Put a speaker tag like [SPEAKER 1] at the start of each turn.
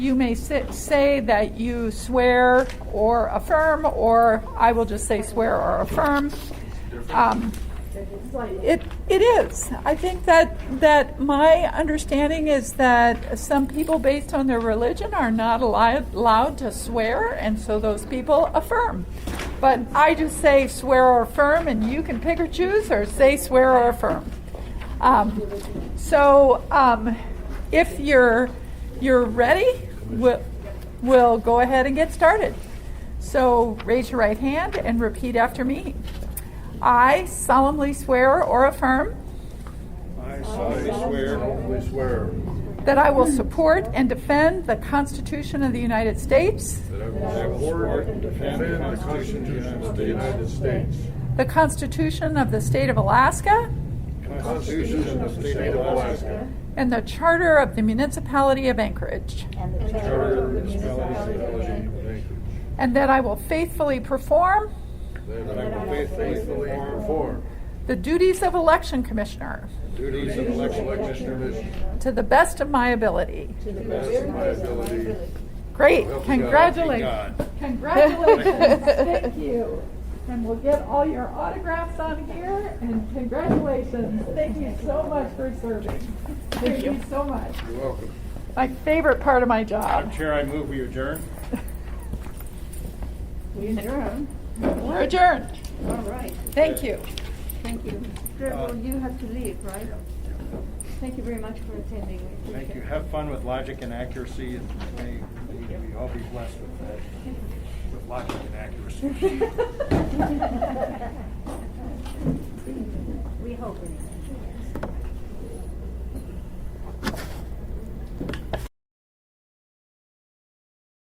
[SPEAKER 1] You may si- say that you swear or affirm, or I will just say swear or affirm. Um, It, it is. I think that, that my understanding is that some people, based on their religion, are not allowed, allowed to swear, and so those people affirm. But I just say swear or affirm, and you can pick or choose, or say swear or affirm. Um, so, um, if you're you're ready, we'll, we'll go ahead and get started. So, raise your right hand and repeat after me. I solemnly swear or affirm
[SPEAKER 2] I solemnly swear. solemnly swear.
[SPEAKER 1] that I will support and defend the Constitution of the United States,
[SPEAKER 2] That I will support and defend the Constitution of the United States.
[SPEAKER 1] the Constitution of the State of Alaska,
[SPEAKER 2] Constitution of the State of Alaska.
[SPEAKER 1] and the Charter of the Municipality of Anchorage,
[SPEAKER 3] And the
[SPEAKER 2] Charter of the
[SPEAKER 3] Charter
[SPEAKER 2] Municipality of Anchorage.
[SPEAKER 1] and that I will faithfully perform
[SPEAKER 2] That I will faithfully perform
[SPEAKER 1] the duties of Election Commissioner
[SPEAKER 2] the duties of election commissioner
[SPEAKER 1] to the best of my ability.
[SPEAKER 2] to the best of my ability.
[SPEAKER 1] Great,
[SPEAKER 2] Help me God.
[SPEAKER 1] congratulations.
[SPEAKER 2] Thank God.
[SPEAKER 1] Congratulations, thank you. And we'll get all your autographs on here, and congratulations. Thank you so much for serving. Thank you so much.
[SPEAKER 2] You're welcome.
[SPEAKER 1] My favorite part of my job.
[SPEAKER 2] Chair, I move we adjourn.
[SPEAKER 3] We adjourn.
[SPEAKER 1] We're adjourned.
[SPEAKER 3] All right,
[SPEAKER 1] Thank you.
[SPEAKER 3] thank you.
[SPEAKER 4] Uh,
[SPEAKER 3] Well, you have to leave, right? Thank you very much for attending. We
[SPEAKER 4] Thank you.
[SPEAKER 3] appreciate it.
[SPEAKER 4] Have fun with logic and accuracy, and may may we all be blessed with that, with logic and accuracy.
[SPEAKER 3] We hope anyway.